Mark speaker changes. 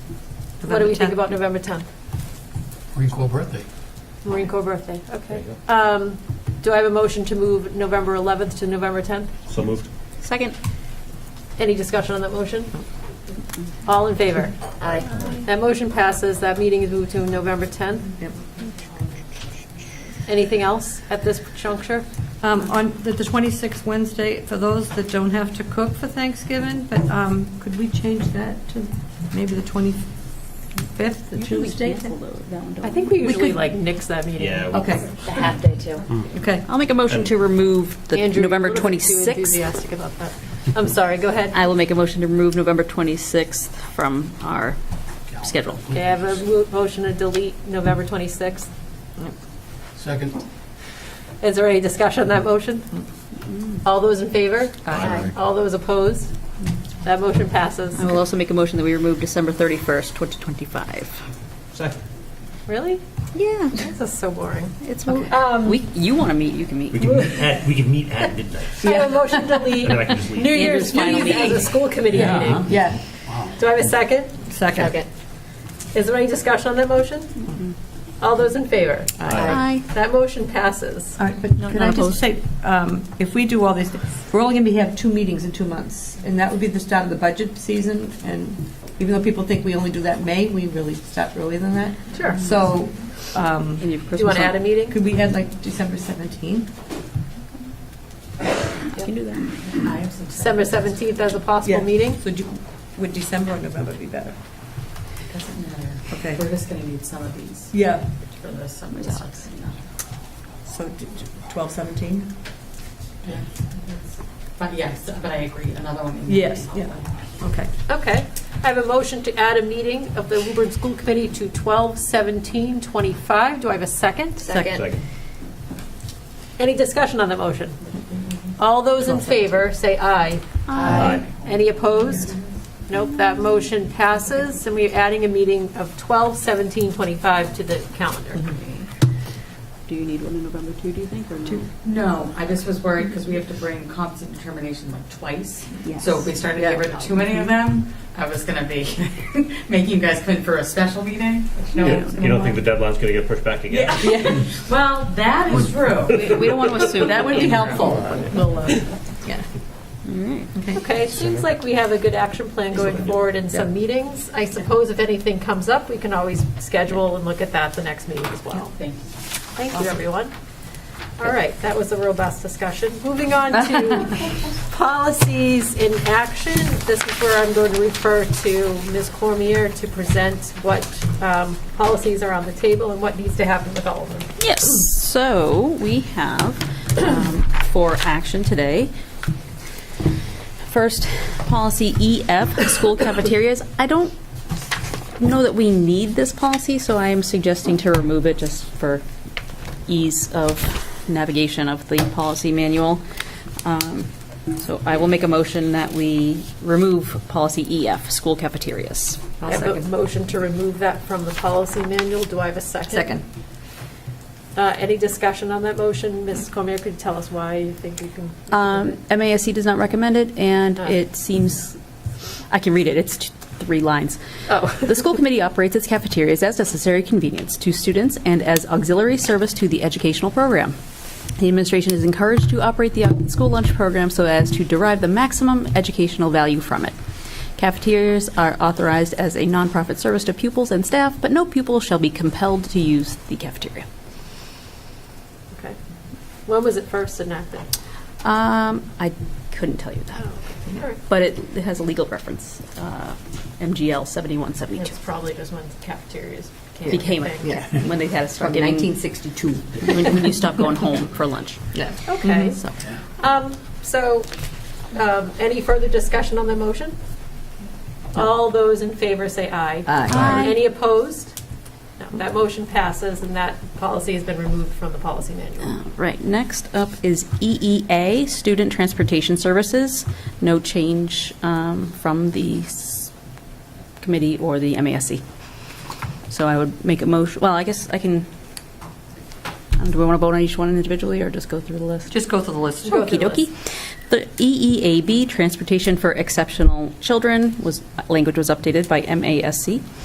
Speaker 1: What do
Speaker 2: November
Speaker 1: we think
Speaker 2: 10th.
Speaker 1: about November 10th?
Speaker 3: Marine Corps birthday.
Speaker 1: Marine Corps birthday, okay.
Speaker 4: There you
Speaker 1: Um, Do I have a motion to move November 11th to November 10th?
Speaker 4: So moved.
Speaker 2: Second.
Speaker 1: Any discussion on that motion? All in favor? Aye. That motion passes, that meeting is moved to November 10th.
Speaker 2: Yep.
Speaker 1: Anything else at this juncture?
Speaker 2: Um, On the the 26th Wednesday, for those that don't have to cook for Thanksgiving, but um, could we change that to maybe the 25th, the Tuesday?
Speaker 1: I think we
Speaker 2: We
Speaker 1: usually
Speaker 2: could-
Speaker 1: like nix that meeting. Oh,
Speaker 4: Yeah.
Speaker 2: Okay,
Speaker 5: The half day too.
Speaker 2: okay.
Speaker 6: I'll make a motion to remove the
Speaker 1: Andrew, you're
Speaker 6: November
Speaker 1: a little bit too
Speaker 6: 26th.
Speaker 1: enthusiastic about that. I'm sorry, go ahead.
Speaker 6: I will make a motion to remove November 26th from our schedule.
Speaker 1: Okay, I have a mo- motion to delete November 26th.
Speaker 3: Second.
Speaker 1: Is there any discussion on that motion? All those in favor?
Speaker 3: Aye.
Speaker 1: All those opposed? That motion passes.
Speaker 6: I will also make a motion that we remove December 31st, 2025.
Speaker 4: Second.
Speaker 1: Really?
Speaker 6: Yeah.
Speaker 1: This is so boring.
Speaker 6: It's,
Speaker 1: Um,
Speaker 6: we, you want to meet, you can
Speaker 4: We
Speaker 6: meet.
Speaker 4: can meet at, we can meet at midnight.
Speaker 1: I have a motion to delete
Speaker 4: And then I can just leave.
Speaker 1: New Year's
Speaker 6: Andrew's final
Speaker 1: Eve as a
Speaker 6: meeting.
Speaker 1: school committee meeting.
Speaker 2: Yeah,
Speaker 1: Do I have a second?
Speaker 2: second.
Speaker 1: Is there any discussion on that motion? All those in favor?
Speaker 6: Aye.
Speaker 1: That motion passes.
Speaker 2: All right, but
Speaker 6: No,
Speaker 2: can I
Speaker 6: not
Speaker 2: just
Speaker 6: opposed.
Speaker 2: say, um, if we do all these, thi- we're only going to have two meetings in two months, and that would be the start of the budget season, and even though people think we only do that in May, we really start earlier than that.
Speaker 1: Sure.
Speaker 2: So, um,
Speaker 1: Do
Speaker 6: And your
Speaker 1: you want
Speaker 6: Christmas
Speaker 1: to add a
Speaker 6: on.
Speaker 1: meeting?
Speaker 2: could we add like December 17th?
Speaker 6: You can do that.
Speaker 1: December 17th as a possible
Speaker 2: Yeah.
Speaker 1: meeting?
Speaker 2: So do- would December or November be better?
Speaker 5: Doesn't matter.
Speaker 2: Okay,
Speaker 5: We're just going to need some of these
Speaker 2: yeah,
Speaker 5: for the summer jobs.
Speaker 2: so d- d- 12, 17?
Speaker 5: But yes, but I agree, another one. in there.
Speaker 2: Yes, yeah. Okay.
Speaker 1: Okay. I have a motion to add a meeting of the Woburn School Committee to 12/17/25. Do I have a second?
Speaker 6: Second.
Speaker 4: Second.
Speaker 1: Any discussion on the motion? All those in favor, say aye.
Speaker 4: Aye.
Speaker 1: Any opposed? Nope, that motion passes, and we're adding a meeting of 12/17/25 to the calendar.
Speaker 6: Do you need one in November too, do you think, or no?
Speaker 5: No, I just was worried because we have to bring constant determination like twice.
Speaker 6: Yes.
Speaker 5: So if we started to get rid of too many of them, I was going to be making you guys come in for a special meeting. which no
Speaker 4: You don't-
Speaker 5: one's gonna
Speaker 4: you don't think the
Speaker 5: want.
Speaker 4: deadline's going to get pushed back again?
Speaker 5: Yeah. Well, that is true.
Speaker 6: We don't want to assume.
Speaker 2: That would be helpful.
Speaker 1: We'll, uh,
Speaker 6: All right.
Speaker 1: Okay, it seems like we have a good action plan going forward in some meetings. I suppose if anything comes up, we can always schedule and look at that the next meeting as well.
Speaker 5: Thank you.
Speaker 1: Thank you, everyone. All right, that was a robust discussion. Moving on to policies in action. This is where I'm going to refer to Ms. Cormier to present what um, policies are on the table and what needs to happen with all of them.
Speaker 6: Yes, so we have um, for action today, first, policy EF, school cafeterias. I don't know that we need this policy, so I am suggesting to remove it just for ease of navigation of the policy manual. Um, So I will make a motion that we remove policy EF, school cafeterias.
Speaker 1: I have a motion to remove that from the policy manual. Do I have a second?
Speaker 2: Second.
Speaker 1: Uh, Any discussion on that motion? Ms. Cormier, could you tell us why you think you can?
Speaker 6: Um, MASC does not recommend it, and
Speaker 1: Ah.
Speaker 6: it seems, I can read it, it's t- three lines.
Speaker 1: Oh.
Speaker 6: The school committee operates its cafeterias as necessary convenience to students and as auxiliary service to the educational program. The administration is encouraged to operate the uh, school lunch program so as to derive the maximum educational value from it. Cafeterias are authorized as a nonprofit service to pupils and staff, but no pupil shall be compelled to use the cafeteria.
Speaker 1: Okay. When was it first enacted?
Speaker 6: Um, I couldn't tell you that.
Speaker 1: Oh, all right.
Speaker 6: But it, it has a legal reference, uh, MGL 7172.
Speaker 1: It's probably just when cafeterias
Speaker 6: Became it,
Speaker 1: thing.
Speaker 6: yeah, when they had to start
Speaker 2: From
Speaker 6: giving,
Speaker 2: 1962.
Speaker 6: when when you stop going home for lunch.
Speaker 2: Yeah.
Speaker 1: Okay.
Speaker 6: So,
Speaker 1: Um, So, um, any further discussion on the motion? All those in favor say aye.
Speaker 2: Aye.
Speaker 1: Any opposed? No, that motion passes, and that policy has been removed from the policy manual.
Speaker 6: uh, Right, next up is EEA, Student Transportation Services. No change um, from the s- committee or the MASC. So I would make a motion, well, I guess I can, um, do we want to vote on each one individually or just go through the list?
Speaker 2: Just go through the list.
Speaker 1: Go through
Speaker 6: Okey
Speaker 1: the
Speaker 6: dokey. The E EEAB, Transportation for Exceptional Children, was, language was updated by MASC.